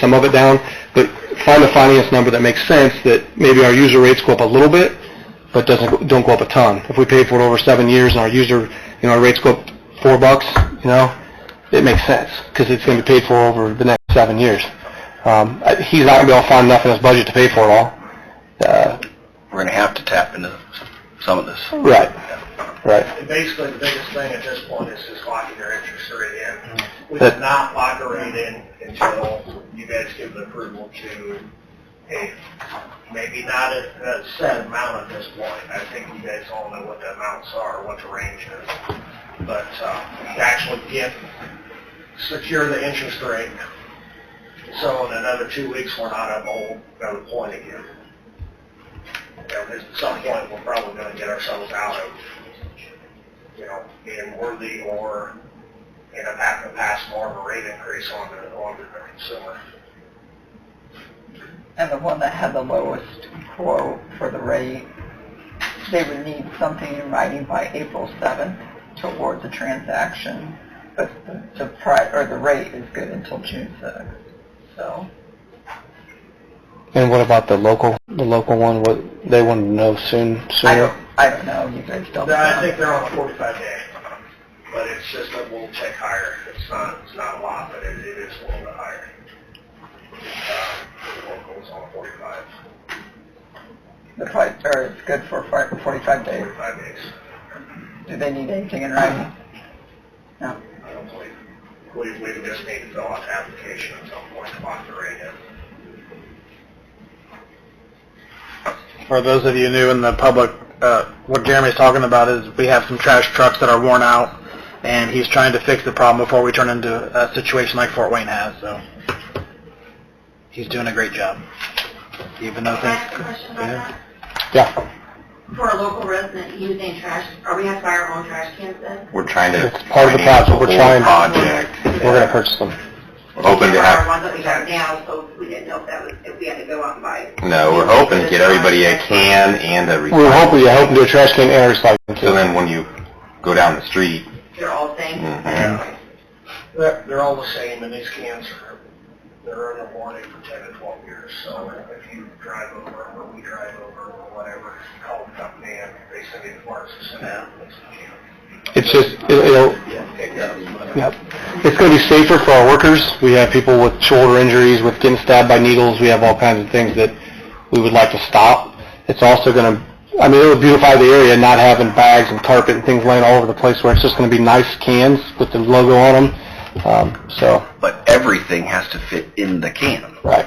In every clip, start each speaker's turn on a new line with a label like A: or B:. A: some of it down, but find a finance number that makes sense, that maybe our user rates go up a little bit, but doesn't, don't go up a ton. If we pay for it over seven years and our user, you know, our rates go up four bucks, you know, it makes sense, because it's gonna be paid for over the next seven years. Um, I- he's not gonna be able to find enough in his budget to pay for it all. Uh,
B: We're gonna have to tap into some of this.
A: right, right.
C: And basically, the biggest thing at this point is just locking your interest rate in. We
A: That-
C: did not lock a rate in until you guys give the approval to, hey, maybe not a, a set amount at this point. I think you guys all know what the amounts are, what the range is. But, uh, you actually get, secure the interest rate. So in another two weeks, we're not up a whole another point again. And at some point, we're probably gonna get ourselves out of you know, being worthy or in a pack to pass more of a rate increase on the, on the consumer.
D: and the one that had the lowest quote for the rate, they would need something in writing by April 7th to award the transaction, but the, the price, or the rate is good until June 6th, so.
A: And what about the local, the local one, what, they wanted to know soon,
D: I
A: sooner?
D: don't, I don't know, you guys don't
C: No, I
D: know.
C: think they're on a forty-five day, but it's just a little tick higher. It's not, it's not a lot, but it, it is a little bit higher. Uh, the locals on forty-five,
D: The price, or it's good for fi- 45 days.
C: forty-five days,
D: Do they need anything in writing? No.
C: I don't believe. We, we just need to fill out the application at some point to lock the rate in.
E: For those of you new in the public, uh, what Jeremy's talking about is we have some trash trucks that are worn out, and he's trying to fix the problem before we turn into a situation like Fort Wayne has, so. He's doing a great job. Even though
F: Can I ask a
E: things...
F: question about that?
A: Yeah,
F: For a local resident using trash, are we have to buy our own trash cans then?
B: We're trying to.
A: It's part of the
B: finance
A: project. We're
B: the
A: trying-
B: whole Project.
A: we're gonna purchase them.
B: We're Hoping to
F: Our
B: have,
F: ones that we have now, so we didn't know if that was, if we had to go out and buy.
B: no, we're hoping to get everybody a can and a.
A: We were hoping, yeah,
B: recycling.
A: hoping to do a trash can and a recycling.
B: So
A: too.
B: then when you go down the street,
F: They're all things.
B: Mhm.
C: They're, they're all the same, and these cans are, they're in the warranty for ten to twelve years, so if you drive over, or we drive over, or whatever, call the company, and they send you the parts, and send out, and
A: It's just, it- it'll,
C: it's
A: yep. It's gonna be safer for our workers. We have people with shoulder injuries, with getting stabbed by needles. We have all kinds of things that we would like to stop. It's also gonna, I mean, it would beautify the area, not having bags and carpet and things laying all over the place where it's just gonna be nice cans with the logo on them. Um, so,
B: but everything has to fit in the can.
A: right.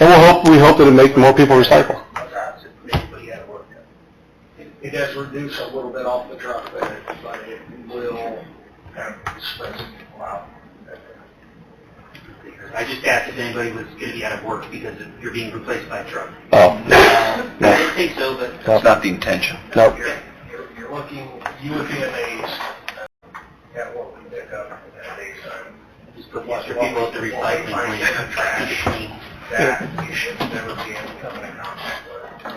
A: And we'll hope, we hope that it make more people recycle.
C: But yeah, it worked. It does reduce a little bit off the truck, but it, but it will kind of spread some people out.
G: I just asked if anybody was going to be out of work because of- you're being replaced by a truck.
A: Oh,
G: I didn't think so, but
B: That's not the intention.
A: nope.
C: You're, you're- you're looking, you would be amazed at what we pick up at these, um,
G: just put extra people at the recycling plant. Keep it clean.
C: that you should never be able to come in contact with.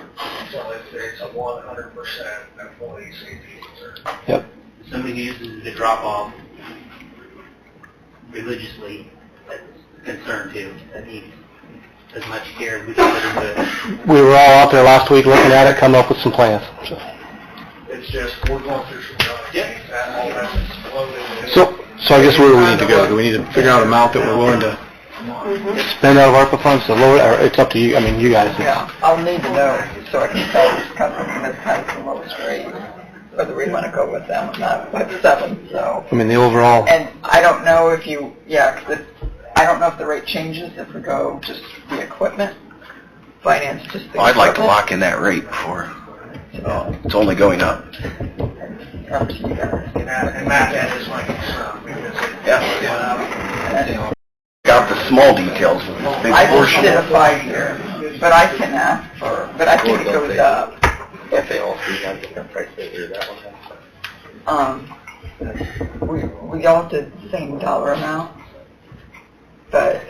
C: So if there's a one hundred percent employee safety concern.
G: Somebody who uses the drop-off religiously, that's a concern too. That needs as much care as we can put into it.
A: We were all out there last week looking at it, coming up with some plans. So-
C: It's just, we're going through some rough
G: Yep.
C: things, that all that's exploded.
A: So, so I guess where do we need to go? Do we
E: need to figure out a amount that we're willing to...
A: need to spend out of ARPA funds to lower, or it's up to you, I mean, you guys.
D: Yeah, I'll need to know so I can tell this company that has the lowest rate, whether we want to go with them or not, with seven, so.
A: I mean, the overall,
D: And I don't know if you, yeah, 'cause if, I don't know if the rate changes if we go just the equipment, finance just the equipment.
B: Well, I'd like to lock in that rate before,
D: so
B: it's only going up.
D: it's Up to you guys.
C: And that, and that that is my concern, because it
B: Yeah,
C: went
B: yeah.
C: up.
B: Got the small details with this big
D: I just
B: portion.
D: did a five-year, but I can ask for, but I think it goes up.
B: If they all three have different prices, or that one.
D: Um, we, we all did the same dollar amount, but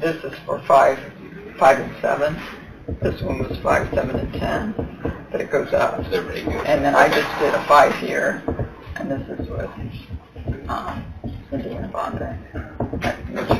D: this is for five, five and seven. This one was five, seven, and ten, but it goes up. And then I just did a five-year, and this is what, um, Cindy and Vonda.